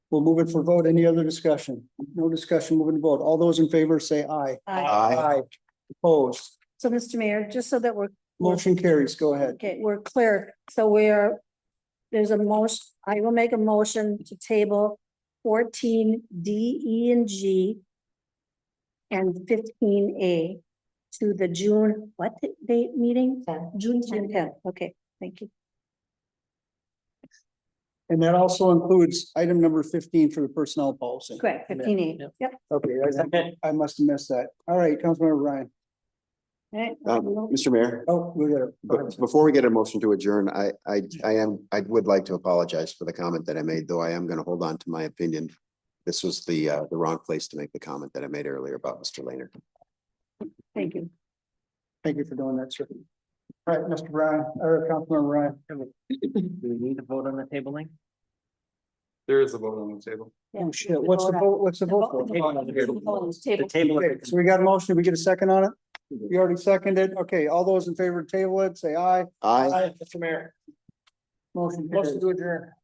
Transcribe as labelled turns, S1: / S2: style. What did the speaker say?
S1: We'll move it for vote. Any other discussion? No discussion, moving to vote. All those in favor say aye.
S2: Aye.
S1: Opposed,
S2: So, Mr. Mayor, just so that we're,
S1: motion carries. Go ahead.
S2: okay, we're clear, so we're, there's a motion, I will make a motion to table fourteen D, E, and G and fifteen A to the June, what date meeting? June tenth, okay, thank you.
S1: And that also includes item number fifteen for the personnel policy.
S2: Correct, fifteen A,
S3: Yep.
S2: yep,
S1: Okay, I- I must have missed that. All right, Councilmember Ryan.
S2: alright.
S4: Um, Mr. Mayor,
S1: Oh, we got it. Go
S4: be-
S1: ahead.
S4: before we get a motion to adjourn, I, I, I am, I would like to apologize for the comment that I made, though I am going to hold on to my opinion. This was the, uh, the wrong place to make the comment that I made earlier about Mr. Laner.
S2: Thank you.
S1: Thank you for doing that, sir. All right, Mr. Ryan, or Councilmember Ryan.
S3: Do we need to vote on the tabling?
S5: There is a vote on the table.
S2: Yeah.
S1: Oh, shit. What's the vote? What's the vote for?
S3: The table.
S1: Okay, so we got a motion. Did we get a second on it? You already seconded. Okay, all those in favor, table it, say aye.
S4: I.
S1: Aye, Mr. Mayor. Motion. Motion to adjourn.